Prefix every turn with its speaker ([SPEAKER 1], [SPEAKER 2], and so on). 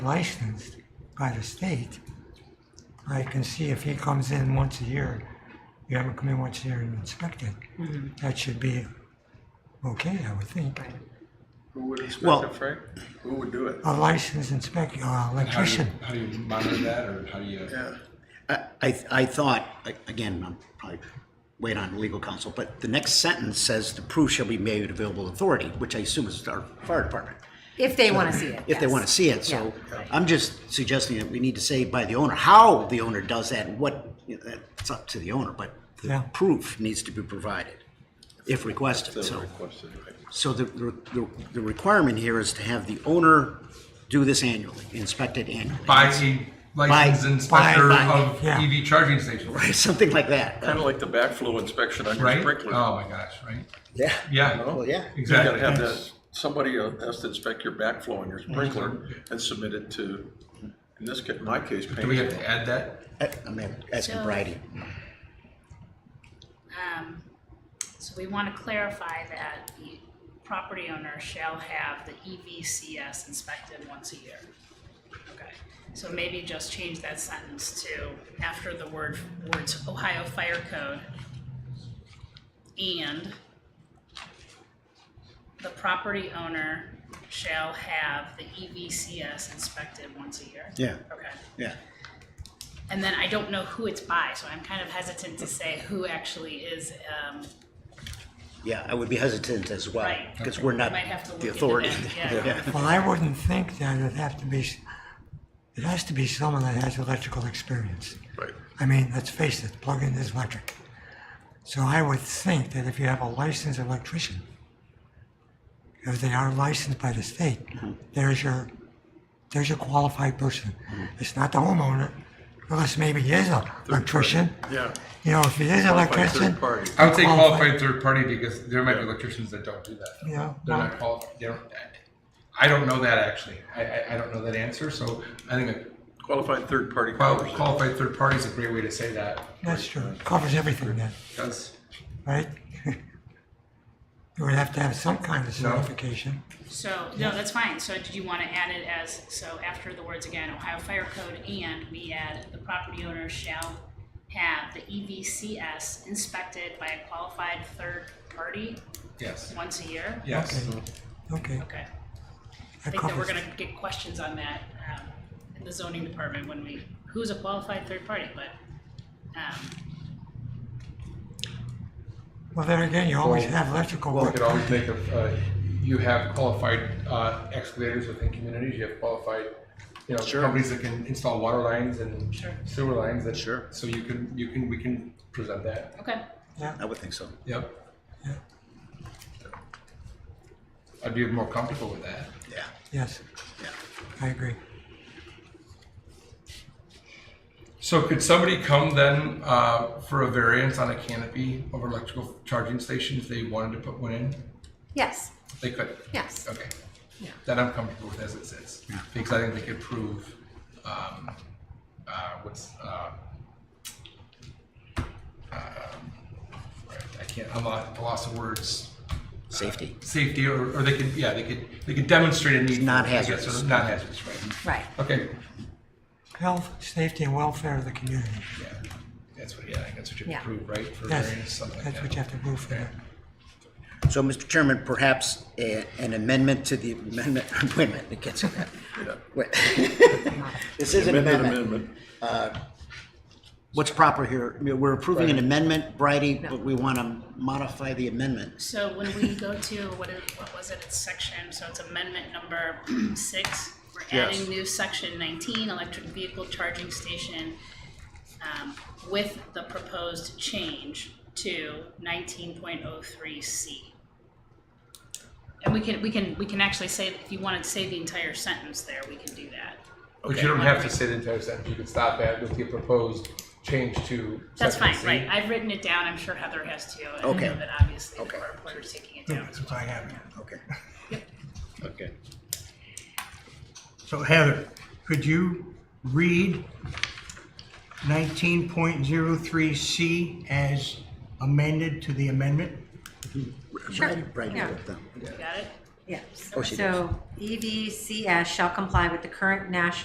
[SPEAKER 1] licensed by the state, I can see if he comes in once a year, you haven't come in once a year and inspected, that should be okay, I would think.
[SPEAKER 2] Who would inspect
[SPEAKER 3] Well-
[SPEAKER 2] it, Frank? Who would do it?
[SPEAKER 1] A licensed inspector, uh,
[SPEAKER 4] How do you,
[SPEAKER 1] electrician,
[SPEAKER 4] how do you monitor that, or how do you?
[SPEAKER 2] Yeah.
[SPEAKER 3] I, I- I thought, again, I'm probably wait on legal counsel, but the next sentence says the proof shall be made available to authority, which I assume is our fire department,
[SPEAKER 5] If they want to see it.
[SPEAKER 3] if they
[SPEAKER 5] yes.
[SPEAKER 3] want to see it. So I'm just suggesting that we need to say by the owner, how the owner does that and what, you know, that's up to the owner, but
[SPEAKER 1] Yeah.
[SPEAKER 3] the proof needs to be provided if requested, so.
[SPEAKER 2] Requested, right.
[SPEAKER 3] So the, the, the requirement here is to have the owner do this annually, inspect it annually.
[SPEAKER 4] By a licensed inspector
[SPEAKER 3] by-
[SPEAKER 4] of
[SPEAKER 1] yeah.
[SPEAKER 4] EV charging stations, right?
[SPEAKER 3] Something like that.
[SPEAKER 2] Kind of like the backflow inspection on your
[SPEAKER 4] Right?
[SPEAKER 2] sprinkler.
[SPEAKER 4] Oh my gosh, right?
[SPEAKER 3] Yeah.
[SPEAKER 4] Yeah.
[SPEAKER 3] Well, yeah.
[SPEAKER 2] You gotta
[SPEAKER 4] Exactly. Mm-hmm.
[SPEAKER 2] have that, somebody uh, has to inspect your backflow on your sprinkler and submit it to, in this case, my case,
[SPEAKER 4] Do we have
[SPEAKER 2] Payne.
[SPEAKER 4] to add that?
[SPEAKER 3] I- I'm asking
[SPEAKER 6] So-
[SPEAKER 3] Bridie.
[SPEAKER 6] Um, So we want to clarify that the property owner shall have the E EVCS inspected once a year. Okay, so maybe just change that sentence to after the word, words Ohio Fire Code and the property owner shall have the E EVCS inspected once a year.
[SPEAKER 3] Yeah,
[SPEAKER 6] Okay.
[SPEAKER 3] yeah.
[SPEAKER 6] And then I don't know who it's by, so I'm kind of hesitant to say who actually is, um,
[SPEAKER 3] Yeah, I would be hesitant as well,
[SPEAKER 6] Right.
[SPEAKER 3] because we're not
[SPEAKER 6] Might have to look
[SPEAKER 3] the
[SPEAKER 6] into
[SPEAKER 3] authority.
[SPEAKER 6] that, yeah.
[SPEAKER 1] well, I wouldn't think that it'd have to be, s- it has to be someone that has electrical experience.
[SPEAKER 2] Right.
[SPEAKER 1] I mean, let's face it, plug-in is electric. So I would think that if you have a licensed electrician, if they are licensed by the state,
[SPEAKER 4] Mm-hmm.
[SPEAKER 1] there's your, there's your qualified person.
[SPEAKER 4] Mm-hmm.
[SPEAKER 1] It's not the homeowner, unless maybe he is an electrician.
[SPEAKER 2] Yeah.
[SPEAKER 1] You know, if he is an
[SPEAKER 2] By
[SPEAKER 1] electrician,
[SPEAKER 2] third party.
[SPEAKER 4] I would say
[SPEAKER 1] Qualified.
[SPEAKER 4] qualified third party because there might be electricians that don't do that.
[SPEAKER 1] you know,
[SPEAKER 4] They're not qualified. They don't, I don't know that actually. I, I, I don't know that answer. So I think a
[SPEAKER 2] Qualified third party
[SPEAKER 4] qual-
[SPEAKER 2] covers it.
[SPEAKER 4] qualified third party is a great way to say that.
[SPEAKER 1] that's true, covers everything then,
[SPEAKER 4] Does
[SPEAKER 1] right? You would have to have some kind of
[SPEAKER 4] No.
[SPEAKER 1] certification.
[SPEAKER 6] so, no, that's fine. So did you want to add it as, so after the words again, Ohio Fire Code and we add the property owner shall have the E EVCS inspected by a qualified third party
[SPEAKER 4] yes.
[SPEAKER 6] once a year?
[SPEAKER 4] Yes.
[SPEAKER 1] Okay, okay.
[SPEAKER 6] Okay. I
[SPEAKER 1] That
[SPEAKER 6] think that we're
[SPEAKER 1] covers,
[SPEAKER 6] gonna get questions on that, um, in the zoning department when we, who's a qualified third party, but, um,
[SPEAKER 1] well, then again, you always
[SPEAKER 4] Well-
[SPEAKER 1] have electrical
[SPEAKER 4] You
[SPEAKER 1] work.
[SPEAKER 4] could always make a, uh, you have qualified uh, excavators within communities, you have qualified, you know, companies that can install water lines and
[SPEAKER 6] Sure.
[SPEAKER 4] sewer lines that.
[SPEAKER 3] Sure.
[SPEAKER 4] So you can, you can, we can present that,
[SPEAKER 6] okay.
[SPEAKER 3] I would think so.
[SPEAKER 4] yep.
[SPEAKER 1] Yeah.
[SPEAKER 4] I'd be more comfortable with that.
[SPEAKER 3] Yeah,
[SPEAKER 1] Yes,
[SPEAKER 3] yeah.
[SPEAKER 1] I agree.
[SPEAKER 4] So could somebody come then uh, for a variance on a canopy over electrical charging station if they wanted to put one in?
[SPEAKER 5] Yes,
[SPEAKER 4] They could?
[SPEAKER 5] yes.
[SPEAKER 4] Okay.
[SPEAKER 5] Yeah.
[SPEAKER 4] That I'm comfortable with as it sits, because I think they could prove, um, uh, what's, uh, um, right, I can't, I'm at a loss of words,
[SPEAKER 3] Safety.
[SPEAKER 4] safety, or, or they could, yeah, they could, they could demonstrate a need. for it, I guess,
[SPEAKER 3] non-hazardous.
[SPEAKER 4] or Non-hazardous, right.
[SPEAKER 5] Right.
[SPEAKER 4] Okay,
[SPEAKER 1] Health, safety, and welfare of the community.
[SPEAKER 4] yeah, that's what, yeah, I think that's what you
[SPEAKER 5] Yeah.
[SPEAKER 4] have to prove, right? For
[SPEAKER 1] Yes,
[SPEAKER 4] variance, something like
[SPEAKER 1] that's
[SPEAKER 4] that.
[SPEAKER 1] what you have to prove for
[SPEAKER 4] Okay.
[SPEAKER 1] that.
[SPEAKER 3] So, Mr. Chairman, perhaps a- an amendment to the amendment, wait a minute, it gets in that. Wait. This is an
[SPEAKER 2] Amended
[SPEAKER 3] amendment.
[SPEAKER 2] amendment.
[SPEAKER 3] What's proper here? I mean, We're approving an amendment, Bridie, but we want to modify the amendment.
[SPEAKER 6] So when we go to, what is, what was it, it's section, so it's amendment number six, we're
[SPEAKER 2] Yes.
[SPEAKER 6] adding new section nineteen, electric vehicle charging station, um, with the proposed change to nineteen point oh three C. And we can, we can, we can actually say, if you wanted to say the entire sentence there, we can do that.
[SPEAKER 4] But you don't have to say the entire sentence, you could stop at with the proposed change to.
[SPEAKER 6] That's
[SPEAKER 4] section
[SPEAKER 6] fine,
[SPEAKER 4] C.
[SPEAKER 6] right, I've written it down, I'm sure Heather has too, and I
[SPEAKER 3] Okay.
[SPEAKER 6] know that obviously the
[SPEAKER 3] Okay.
[SPEAKER 6] board board is taking it down as well.
[SPEAKER 1] That's what I have.
[SPEAKER 3] Okay.
[SPEAKER 2] Okay.
[SPEAKER 7] So Heather, could you read nineteen point zero three C as amended to the amendment?
[SPEAKER 3] Bridie, Bridie,
[SPEAKER 5] Yeah.
[SPEAKER 3] with them.
[SPEAKER 6] You Got it?
[SPEAKER 5] Yes. E
[SPEAKER 3] Oh, she
[SPEAKER 5] So EVCS shall comply with the current national